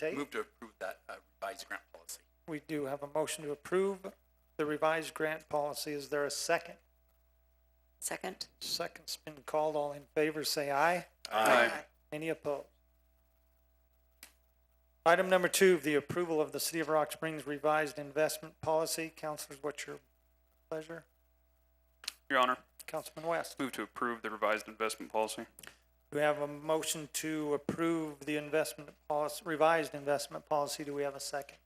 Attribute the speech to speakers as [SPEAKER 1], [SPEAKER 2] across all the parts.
[SPEAKER 1] Okay,
[SPEAKER 2] Move to approve that uh, revised grant policy.
[SPEAKER 1] we do have a motion to approve the revised grant policy. Is there a second?
[SPEAKER 3] Second?
[SPEAKER 1] Second's been called. All in favor, say aye.
[SPEAKER 3] Aye.
[SPEAKER 1] Any opposed? Item number two, the approval of the City of Rock Springs revised investment policy. Counselors, what's your pleasure?
[SPEAKER 4] Your Honor,
[SPEAKER 1] Councilman West?
[SPEAKER 4] move to approve the revised investment policy.
[SPEAKER 1] Do we have a motion to approve the investment policy, revised investment policy? Do we have a second?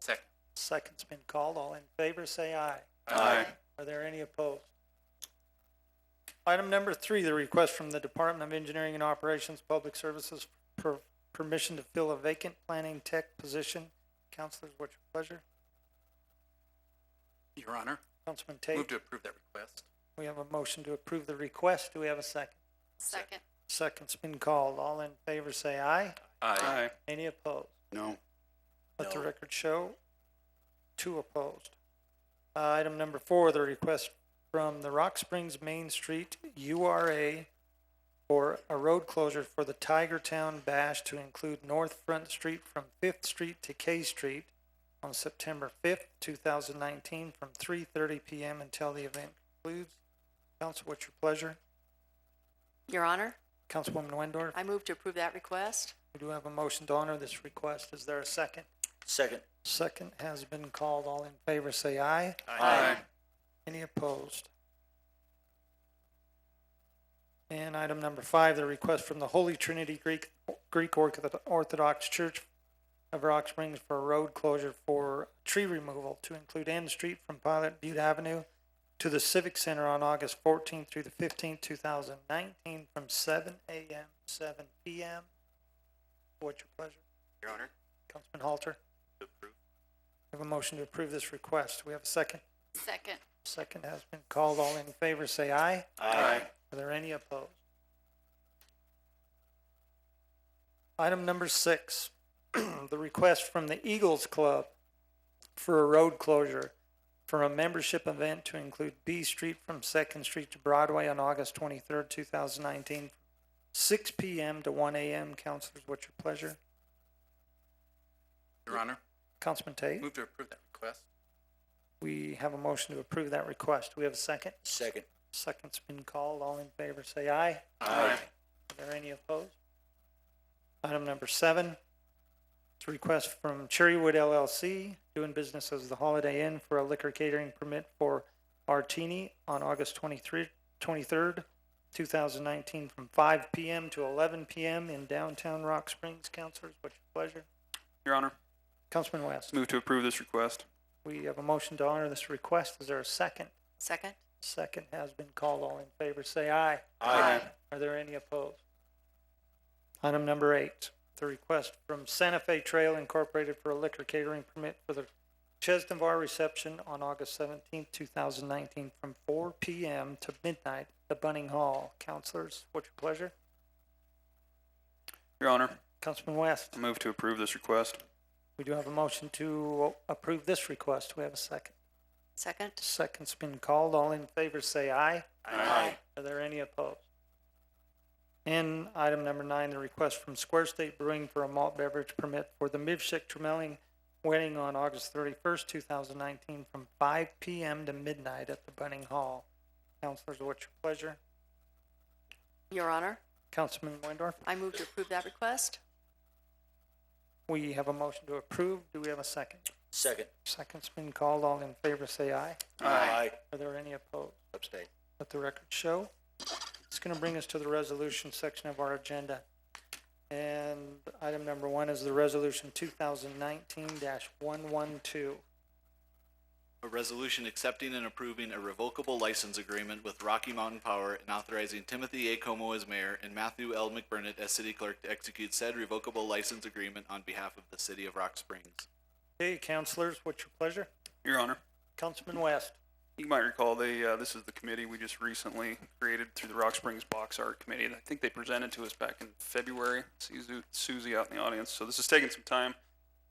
[SPEAKER 2] Second.
[SPEAKER 1] Second's been called. All in favor, say aye.
[SPEAKER 2] Uh,
[SPEAKER 4] Aye.
[SPEAKER 1] Are there any opposed? Item number three, the request from the Department of Engineering and Operations Public Services for permission to fill a vacant planning tech position. Counselors, what's your pleasure?
[SPEAKER 2] Your Honor,
[SPEAKER 1] Councilman
[SPEAKER 2] move
[SPEAKER 1] Tate,
[SPEAKER 2] to approve that request.
[SPEAKER 1] we have a motion to approve the request. Do we have a second?
[SPEAKER 3] Second.
[SPEAKER 1] Second's been called. All in favor, say aye.
[SPEAKER 4] Aye.
[SPEAKER 1] Any opposed?
[SPEAKER 2] No.
[SPEAKER 1] Let the
[SPEAKER 2] No.
[SPEAKER 1] record show, two opposed. Uh, Item number four, the request from the Rock Springs Main Street URA for a road closure for the Tiger Town Bash to include North Front Street from Fifth Street to K Street on September fifth, two thousand nineteen, from three thirty PM until the event concludes. Council, what's your pleasure?
[SPEAKER 3] Your Honor,
[SPEAKER 1] Councilwoman Wendorf,
[SPEAKER 3] I move to approve that request.
[SPEAKER 1] we do have a motion to honor this request. Is there a second?
[SPEAKER 2] Second.
[SPEAKER 1] Second has been called. All in favor, say aye.
[SPEAKER 3] Aye.
[SPEAKER 1] Any opposed? And item number five, the request from the Holy Trinity Greek, Greek Ortho- Orthodox Church of Rock Springs for a road closure for tree removal to include End Street from Pilot Butte Avenue to the Civic Center on August fourteenth through the fifteenth, two thousand nineteen, from seven AM, to seven PM. What's your pleasure?
[SPEAKER 2] Your Honor,
[SPEAKER 1] Councilman Halter,
[SPEAKER 2] to approve.
[SPEAKER 1] we have a motion to approve this request. We have a second.
[SPEAKER 3] Second.
[SPEAKER 1] Second has been called. All in favor, say aye.
[SPEAKER 2] Aye.
[SPEAKER 1] Are there any opposed? Item number six, the request from the Eagles Club for a road closure for a membership event to include B Street from Second Street to Broadway on August twenty-third, two thousand nineteen, six P M. to one A M. Counselors, what's your pleasure?
[SPEAKER 2] Your Honor,
[SPEAKER 1] Councilman Tate,
[SPEAKER 2] move to approve that request.
[SPEAKER 1] we have a motion to approve that request. Do we have a second?
[SPEAKER 2] Second.
[SPEAKER 1] Second's been called. All in favor, say aye.
[SPEAKER 2] Aye.
[SPEAKER 1] Are there any opposed? Item number seven, it's a request from Cherrywood LLC, doing business as the Holiday Inn for a liquor catering permit for Artini on August twenty-three, twenty-third, two thousand nineteen, from five PM to eleven PM in downtown Rock Springs. Counselors, what's your pleasure?
[SPEAKER 4] Your Honor,
[SPEAKER 1] Councilman West,
[SPEAKER 4] move to approve this request.
[SPEAKER 1] we have a motion to honor this request. Is there a second?
[SPEAKER 3] Second?
[SPEAKER 1] Second has been called. All in favor, say aye.
[SPEAKER 3] Aye.
[SPEAKER 1] Are there any opposed? Item number eight, the request from Santa Fe Trail Incorporated for a liquor catering permit for the Chesnavar reception on August seventeenth, two thousand nineteen, from four P M. to midnight at the Bunning Hall. Counselors, what's your pleasure?
[SPEAKER 4] Your Honor,
[SPEAKER 1] Councilman West,
[SPEAKER 4] I move to approve this request.
[SPEAKER 1] we do have a motion to approve this request. Do we have a second?
[SPEAKER 3] Second?
[SPEAKER 1] Second's been called. All in favor, say aye.
[SPEAKER 3] Aye.
[SPEAKER 1] Are there any opposed? And item number nine, the request from Square State Brewing for a malt beverage permit for the Mivshik Tremelling wedding on August thirty-first, two thousand nineteen, from five PM to midnight at the Bunning Hall. Counselors, what's your pleasure?
[SPEAKER 3] Your Honor,
[SPEAKER 1] Councilman Windorf,
[SPEAKER 3] I move to approve that request.
[SPEAKER 1] we have a motion to approve. Do we have a second?
[SPEAKER 2] Second.
[SPEAKER 1] Second's been called. All in favor, say aye.
[SPEAKER 2] Aye.
[SPEAKER 1] Are there any opposed?
[SPEAKER 2] Abstain.
[SPEAKER 1] Let the record show. It's gonna bring us to the resolution section of our agenda. And item number one is the resolution two thousand nineteen one one two.
[SPEAKER 5] A resolution accepting and approving a revocable license agreement with Rocky Mountain Power and authorizing Timothy A. Como as mayor and Matthew L. McBurnett as city clerk to execute said revocable license agreement on behalf of the city of Rock Springs.
[SPEAKER 1] Hey, counselors, what's your pleasure?
[SPEAKER 4] Your Honor,
[SPEAKER 1] Councilman West,
[SPEAKER 4] you might recall they, uh, this is the committee we just recently created through the Rock Springs Box Art Committee. I think they presented to us back in February. See Su- Susie out in the audience. So this is taking some time,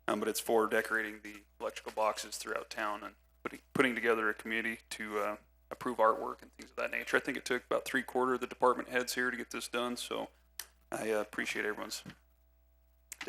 [SPEAKER 4] um, but it's for decorating the electrical boxes throughout town and putting, putting together a committee to, uh, approve artwork and things of that nature. I think it took about three quarter of the department heads here to get this done, so I uh, appreciate everyone's